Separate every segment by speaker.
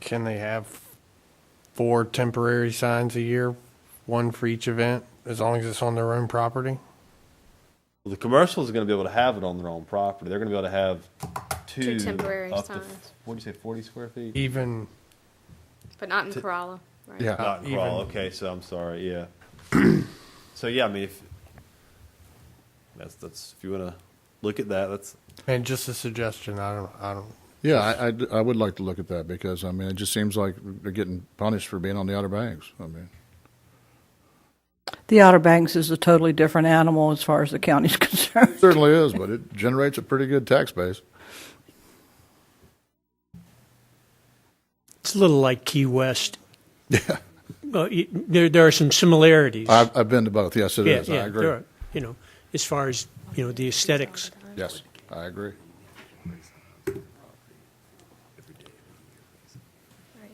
Speaker 1: Can they have four temporary signs a year, one for each event, as long as it's on their own property?
Speaker 2: The commercials are going to be able to have it on their own property. They're going to be able to have two,
Speaker 3: Two temporary
Speaker 2: up to,
Speaker 3: signs.
Speaker 2: what do you say, 40 square feet?
Speaker 1: Even,
Speaker 3: But not in Corolla, right?
Speaker 1: yeah.
Speaker 2: Not in
Speaker 1: even-
Speaker 2: Crawl. Okay, so I'm sorry. Yeah. so yeah, I mean, if that's that's if you want to look at that, that's
Speaker 1: And just a suggestion, I don't, I don't,
Speaker 4: Yeah, I, I'd- I, would like to look at that because, I mean, it just seems like they're getting punished for being on the Outer Banks. I mean,
Speaker 5: The Outer Banks is a totally different animal as far as the county's concerned.
Speaker 4: it certainly is, but it generates a pretty good tax base.
Speaker 6: It's a little like Key West. Yeah. there, there are some similarities.
Speaker 4: I've, I've been to both. Yes, it
Speaker 6: yeah,
Speaker 4: is.
Speaker 6: yeah,
Speaker 4: I agree.
Speaker 6: there are, you know, as far as you know, the aesthetics.
Speaker 4: Yes, I agree.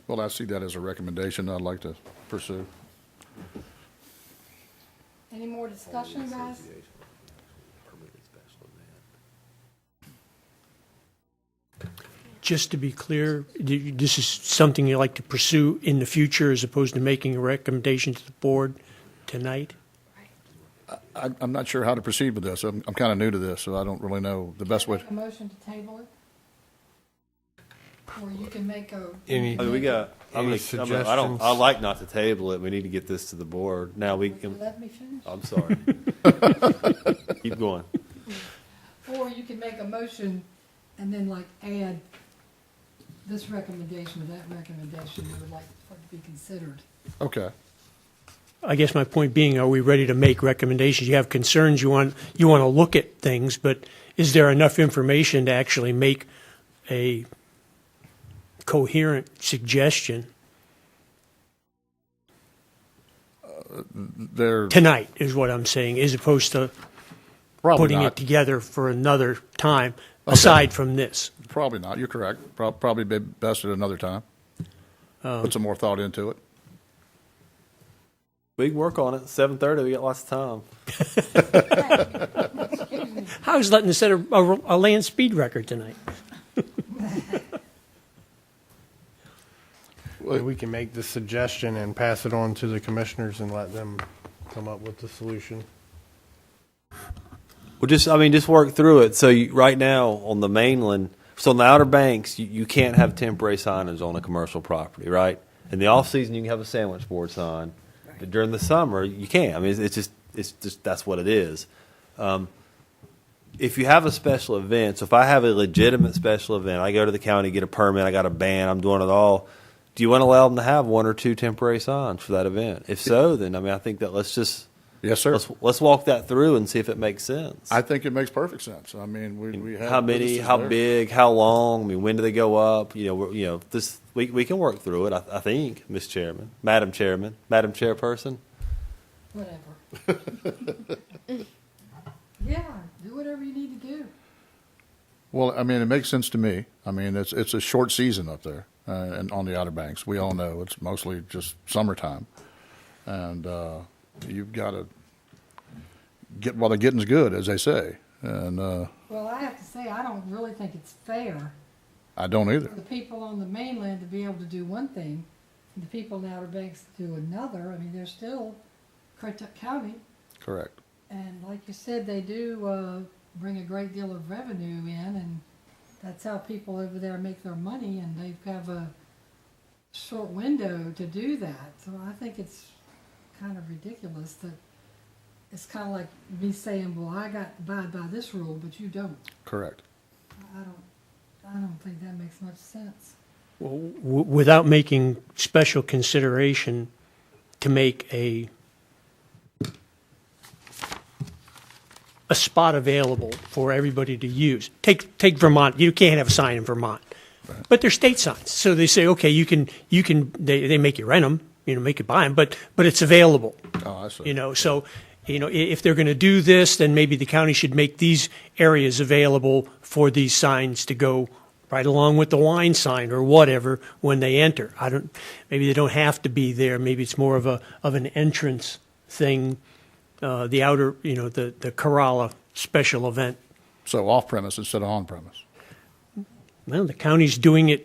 Speaker 4: Well, I see that as a recommendation I'd like to pursue.
Speaker 7: Any more discussion, guys?
Speaker 6: Just to be clear, th- this is something you like to pursue in the future, as opposed to making a recommendation to the board tonight.
Speaker 4: I, I'm not sure how to proceed with this. I'm, I'm kind of new to this, so I don't really know the best way.
Speaker 7: Make a motion to table it? Or you can make a,
Speaker 1: any,
Speaker 2: I mean, Oh, we got. I'm
Speaker 1: Any
Speaker 2: gonna, I'm gonna, I don't. I
Speaker 1: suggestions?
Speaker 2: like not to table it. We need to get this to the board now. We. Can,
Speaker 7: let me finish.
Speaker 2: I'm sorry. Keep going.
Speaker 7: Or you can make a motion and then like add this recommendation or that recommendation you would like for it to be considered.
Speaker 4: Okay.
Speaker 6: I guess my point being, are we ready to make recommendations? You have concerns. You want you want to look at things, but is there enough information to actually make a coherent suggestion
Speaker 4: They're
Speaker 6: tonight? Is what I'm saying, as opposed to
Speaker 4: probably
Speaker 6: putting
Speaker 4: not.
Speaker 6: it together for another time aside from this.
Speaker 4: Probably not. You're correct. Prob- Probably be best at another time. Put some more thought into it.
Speaker 2: We can work on it. Seven thirty. We got lots of time.
Speaker 6: I was letting us set a, a, a land speed record tonight.
Speaker 1: and we can make the suggestion and pass it on to the commissioners and let them come up with the solution.
Speaker 2: Well, just I mean, just work through it. So you, right now on the mainland, so on the Outer Banks, you, you can't have temporary signage on a commercial property, right? In the off season, you can have a sandwich board sign, but during the summer, you can't. I mean, it's, it's just it's just that's what it is. Um, if you have a special event, so if I have a legitimate special event, I go to the county, get a permit, I got a band, I'm doing it all. Do you want to allow them to have one or two temporary signs for that event? If so, then I mean, I think that let's just
Speaker 4: Yes, sir.
Speaker 2: let's let's walk that through and see if it makes sense.
Speaker 4: I think it makes perfect sense. I mean, we, we have
Speaker 2: how many,
Speaker 4: businesses
Speaker 2: how
Speaker 4: there.
Speaker 2: big, how long? I mean, when do they go up? You know, we're, you know, this we we can work through it. I, I think, Miss Chairman, Madam Chairman, Madam Chairperson.
Speaker 7: Whatever. Yeah, do whatever you need to do.
Speaker 4: Well, I mean, it makes sense to me. I mean, it's it's a short season up there, uh, and on the Outer Banks, we all know it's mostly just summertime, and uh, you've got to get while the getting's good, as they say, and uh,
Speaker 7: Well, I have to say, I don't really think it's fair
Speaker 4: I don't either.
Speaker 7: for the people on the mainland to be able to do one thing, and the people in Outer Banks to do another. I mean, they're still Currituck County,
Speaker 4: Correct.
Speaker 7: and like you said, they do uh, bring a great deal of revenue in, and that's how people over there make their money, and they have a short window to do that. So I think it's kind of ridiculous that it's kind of like me saying, "Well, I got to abide by this rule, but you don't."
Speaker 4: Correct.
Speaker 7: I don't. I don't think that makes much sense.
Speaker 6: W- without making special consideration to make a a spot available for everybody to use. Take take Vermont. You can't have a sign in Vermont, but they're state signs. So they say, okay, you can you can they, they make you rent them, you know, make you buy them, but but it's available.
Speaker 4: Oh, I see.
Speaker 6: You know, so, you know, i- if they're going to do this, then maybe the county should make these areas available for these signs to go right along with the wine sign or whatever when they enter. I don't, maybe they don't have to be there. Maybe it's more of a, of an entrance thing, uh, the outer, you know, the, the Corolla special event.
Speaker 4: So off premise instead of on premise.
Speaker 6: Well, the county's doing it